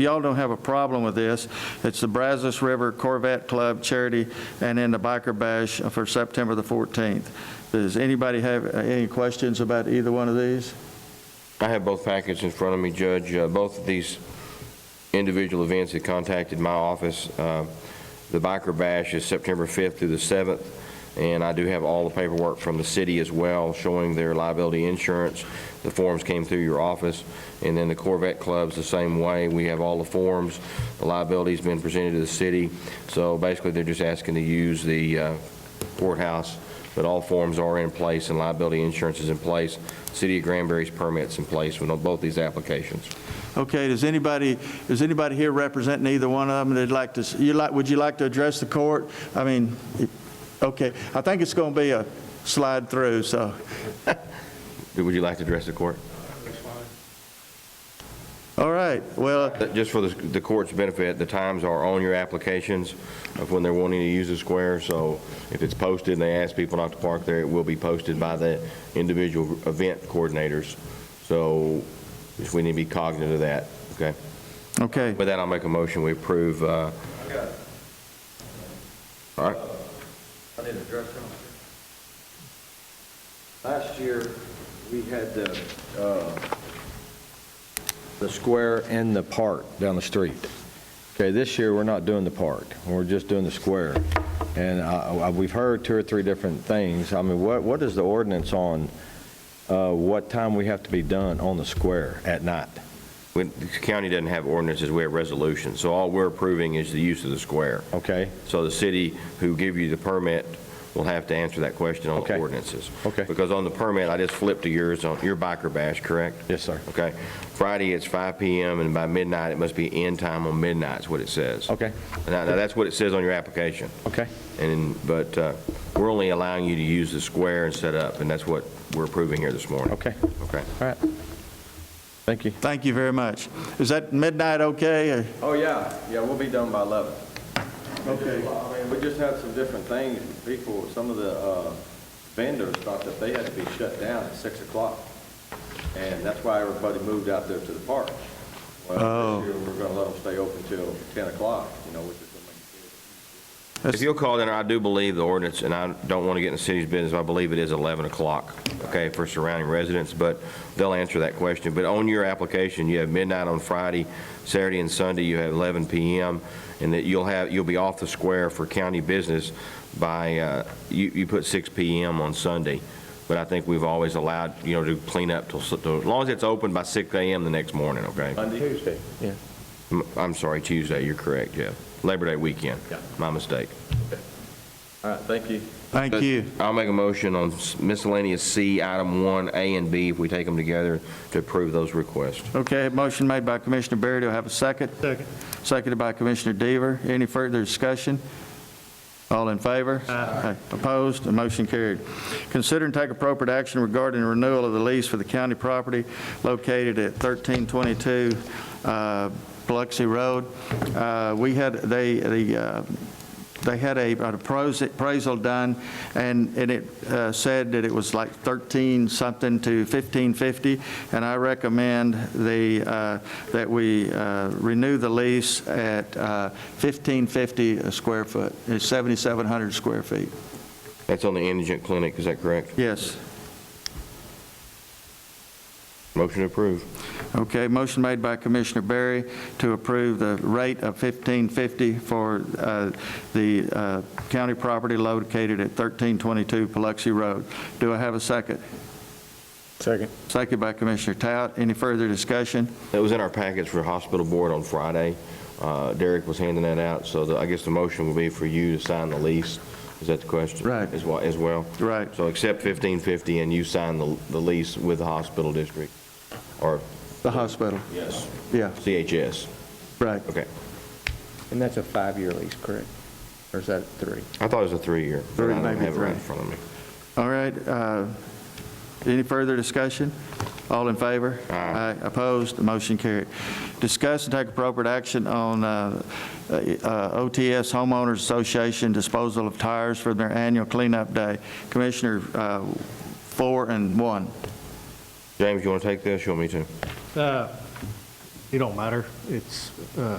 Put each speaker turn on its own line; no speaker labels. y'all don't have a problem with this. It's the Brazos River Corvette Club Charity and then the Biker Bash for September the 14th. Does anybody have uh, any questions about either one of these?
I have both packets in front of me, Judge. Uh, Both of these individual events that contacted my office. Uh, The Biker Bash is September 5th through the 7th, and I do have all the paperwork from the city as well, showing their liability insurance. The forms came through your office, and then the Corvette Club's the same way. We have all the forms. The liability's been presented to the city, so basically, they're just asking to use the uh, courthouse, but all forms are in place, and liability insurance is in place. City of Granbury's permit's in place with both these applications.
Okay, does anybody, is anybody here representing either one of them that'd like to, s- you like, would you like to address the court? I mean, it- okay, I think it's going to be a slide through, so,
Would you like to address the court?
all right, well,
That- Just for the the court's benefit, the times are on your applications of when they're wanting to use the square, so if it's posted and they ask people not to park there, it will be posted by the individual event coordinators. So just we need to be cognizant of that, okay?
okay.
With that, I'll make a motion, we approve. uh, All right,
I need to address something. Last year, we had the, uh, the square and the park down the street. Okay, this year, we're not doing the park, we're just doing the square. And I- I- we've heard two or three different things. I mean, what, what is the ordinance on uh, what time we have to be done on the square at night?
When- the county doesn't have ordinances, we have resolutions, so all we're approving is the use of the square.
Okay?
So the city who give you the permit will have to answer that question on the
Okay.
ordinances.
Okay.
Because on the permit, I just flipped to yours, on your biker bash, correct?
Yes, sir.
Okay. Friday, it's 5 PM, and by midnight, it must be end time on midnight, is what it says.
Okay,
Now, now, that's what it says on your application,
okay.
and, but uh, we're only allowing you to use the square and set up, and that's what we're approving here this morning.
Okay.
Okay.
All right. Thank you.
Thank you very much. Is that midnight okay? or-
Oh, yeah, yeah, we'll be done by 11.
Okay.
I mean, we just had some different things, people, some of the uh, vendors thought that they had to be shut down at 6 o'clock, and that's why everybody moved out there to the park. Well,
Oh.
this year, we're going to let them stay open till 10 o'clock, you know, which is going to make
If you'll call in, I do believe the ordinance, and I don't want to get in the city's business, I believe it is 11 o'clock, okay, for surrounding residents, but they'll answer that question. But on your application, you have midnight on Friday, Saturday and Sunday, you have 11 PM, and that you'll have, you'll be off the square for county business by, uh, you, you put 6 PM on Sunday, but I think we've always allowed, you know, to clean up till, s- till- as long as it's open by 6 AM the next morning, okay?
it Monday. Tuesday.
M- I'm sorry, Tuesday, you're correct, Jeff. Labor Day weekend.
Yeah.
My mistake.
All right, thank you.
Thank you.
I'll make a motion on miscellaneous C, item 1, A and B, if we take them together, to approve those requests.
Okay, motion made by Commissioner Berry, do I have a second? Second. Seconded by Commissioner Deaver. Any further discussion? All in favor? Aye. Opposed? The motion carried. Consider and take appropriate action regarding renewal of the lease for the county property located at 1322 uh, Biloxi Road. Uh, We had, they, the uh, they had a, an appraisal- appraisal done, and, and it uh, said that it was like 13 something to 1550, and I recommend the, uh, that we uh, renew the lease at uh, 1550 a square foot, It's 7,700 square feet.
That's on the indigent clinic, is that correct?
Yes.
Motion approved.
Okay, motion made by Commissioner Berry to approve the rate of 1550 for uh, the uh, county property located at 1322 Paluxy Road. Do I have a second?
Second.
Second by Commissioner Tout. Any further discussion?
That was in our packets for hospital board on Friday. Uh, Derek was handing that out, so the- I guess the motion will be for you to sign the lease. Is that the question?
Right.
As well, as well?
Right.
So accept 1550, and you sign the the lease with the hospital district, or
The hospital.
Yes.
Yeah,
CHS.
right.
Okay.
And that's a five-year lease, correct? Or is that three?
I thought it was a three-year. but
Three,
I don't
maybe
have it right in
three.
front of me.
All right. uh, Any further discussion? All in favor?
Aye.
Opposed? The motion carried. Discuss and take appropriate action on uh, uh, OTS Homeowners Association disposal of tires for their annual cleanup day. Commissioner, uh, four and one.
James, you want to take this? You want me to?
Uh, It don't matter. It's, uh,